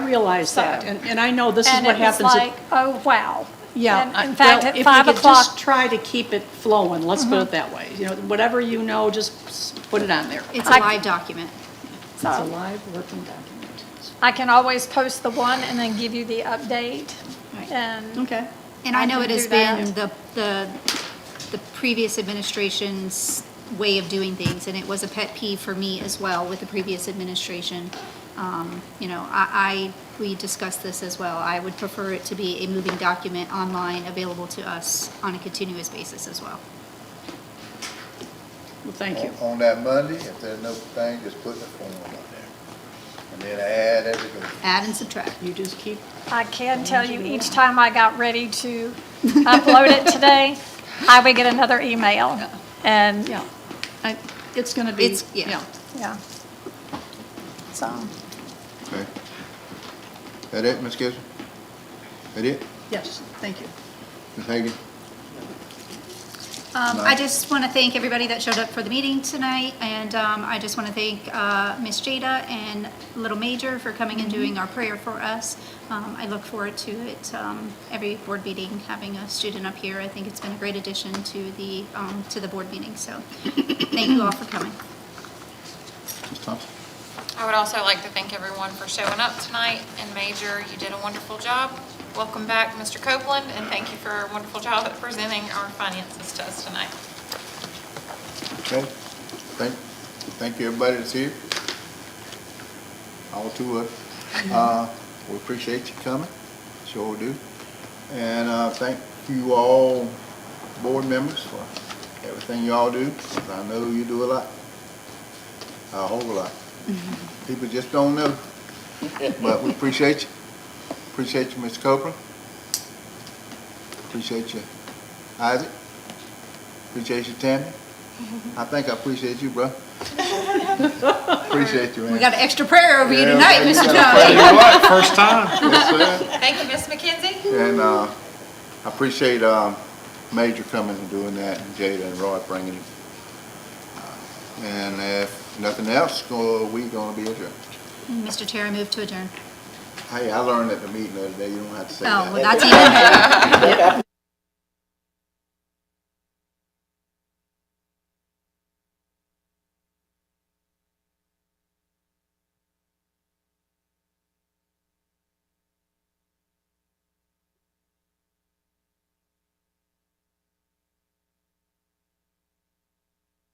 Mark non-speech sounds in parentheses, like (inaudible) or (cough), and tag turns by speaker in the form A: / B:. A: realize
B: So-
A: that, and, and I know this is
B: And
A: what
B: it was
A: happens. at-
B: like, oh, wow.
A: Yeah.
B: And
A: I-
B: In fact,
A: well,
B: at
A: If
B: five
A: we could just
B: o'clock, Mm-hmm.
A: try to keep it flowing, let's put it that way. You know, whatever you know, just s- put it on there.
C: It's a
B: I-
C: live document.
A: It's a
B: so
A: live working document.
B: I can always post the one and then give you the update.
A: Right.
B: And
A: Okay.
C: And I
B: I
C: know
B: can
C: it has
B: do that.
C: been the, the, the previous administration's way of doing things, and it was a pet peeve for me as well with the previous administration. Um, You know, I, I, we discussed this as well. I would prefer it to be a moving document online available to us on a continuous basis as well.
A: Well, thank you.
D: On that Monday, if there's no thing, just put the form on there. And then add as it goes.
C: Add and subtract.
A: You just keep,
B: I can tell you, each time I got ready
A: (laughs)
B: to upload it today, I would get another email. And,
A: yeah. I- It's going to be,
C: It's- yeah.
A: yeah.
B: yeah. So.
D: Okay. That it, Ms. Gibson? That it?
A: Yes, thank you.
D: Ms. Hagan?
C: Um,
D: No.
C: I just want to thank everybody that showed up for the meeting tonight, and um, I just want to thank uh, Ms. Jada and Little Major for coming and doing our prayer for us. Um, I look forward to it, um, every board meeting, having a student up here. I think it's been a great addition to the, um, to the board meeting, so thank you all for coming.
D: Ms. Thompson?
E: I would also like to thank everyone for showing up tonight, and Major, you did a wonderful job. Welcome back, Mr. Copeland, and thank you for a wonderful job at presenting our finances to us tonight.
D: Okay. Thank, thank you, everybody that's here. All two of us. Uh, we appreciate you coming, sure do. And, uh, thank you all, board members, for everything you all do. 'cause I know you do a lot. A whole lot. People just don't know. But we appreciate you. Appreciate you, Mr. Copeland. Appreciate you, Isaac. Appreciate you, Tammy. I think I appreciate you, bro. Appreciate you, man.
C: We got an extra prayer over you
D: Yeah,
C: tonight,
D: we
C: Mr.
D: got a
C: Jones.
D: prayer.
C: (laughs)
F: First time.
D: Yes, sir.
E: Thank you, Ms. McKenzie.
D: And, uh, I appreciate, um, Major coming and doing that, and Jada and Roy bringing it. Uh, And if nothing else, go- we gonna be adjourned.
C: Mr. Chair, I move to adjourn.
D: Hey, I learned at the meeting the other day, you don't have to say
C: Oh,
D: that.
C: well, that's even better.